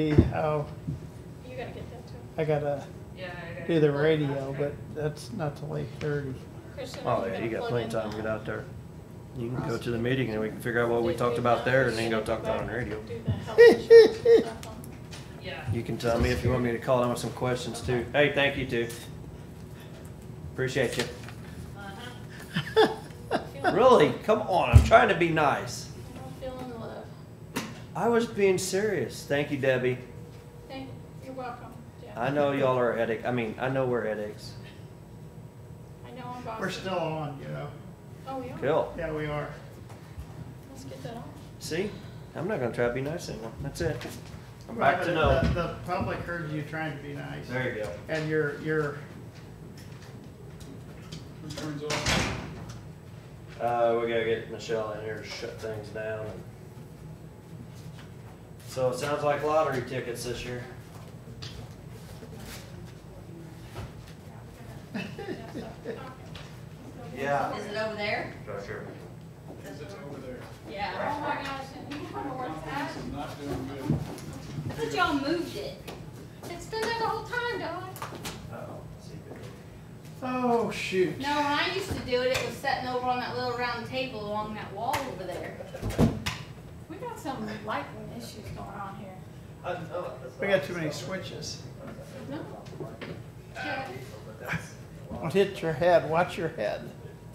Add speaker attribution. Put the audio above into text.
Speaker 1: Oh,
Speaker 2: You gotta get that too.
Speaker 1: I gotta
Speaker 3: Yeah, I gotta
Speaker 1: do the
Speaker 3: plug that
Speaker 1: radio,
Speaker 3: back.
Speaker 1: but that's not till eight thirty.
Speaker 2: Christian,
Speaker 4: Oh, yeah, you got
Speaker 2: plug
Speaker 4: plenty
Speaker 2: in
Speaker 4: of time to
Speaker 2: the-
Speaker 4: get out there. You can go to the meeting and we can figure out what we talked about there and then go talk about it on the radio.
Speaker 2: Do the health insurance stuff on-
Speaker 3: Yeah.
Speaker 4: You can tell me if you want me to call in with some questions too. Hey, thank you too. Appreciate you.
Speaker 3: Uh-huh.
Speaker 2: I'm feeling-
Speaker 4: Really? Come on, I'm trying to be nice.
Speaker 2: I'm feeling love.
Speaker 4: I was being serious. Thank you, Debbie.
Speaker 2: Thank, you're welcome, Jeff.
Speaker 4: I know y'all are headache, I mean, I know we're headaches.
Speaker 2: I know I'm bossy.
Speaker 1: We're still on, you know?
Speaker 2: Oh, we are?
Speaker 4: Cool.
Speaker 1: Yeah, we are.
Speaker 2: Let's get that on.
Speaker 4: See? I'm not gonna try to be nice anymore. That's it. I'm
Speaker 1: Right,
Speaker 4: back to
Speaker 1: but
Speaker 4: no.
Speaker 1: The, the public heard you trying to be nice,
Speaker 4: There you go.
Speaker 1: and you're, you're,
Speaker 4: Uh, we gotta get Michelle in here to shut things down. and- So it sounds like lottery tickets this year.
Speaker 2: That's all.
Speaker 4: Yeah.
Speaker 5: Is it over there?
Speaker 4: For sure.
Speaker 6: Is it over there?
Speaker 5: Yeah.
Speaker 2: Oh my gosh, and you don't know where it's at?
Speaker 6: It's not doing good.
Speaker 5: I thought y'all moved it.
Speaker 2: It's been there the whole time, dog.
Speaker 4: Uh-oh, let's see if it-
Speaker 1: oh, shoot.
Speaker 5: No, when I used to do it, it was sitting over on that little round table along that wall over there.
Speaker 2: We got some lightning issues going on here.
Speaker 5: Oh,
Speaker 1: We got too many switches.
Speaker 2: No? Yeah.
Speaker 1: Don't hit your head, watch your head.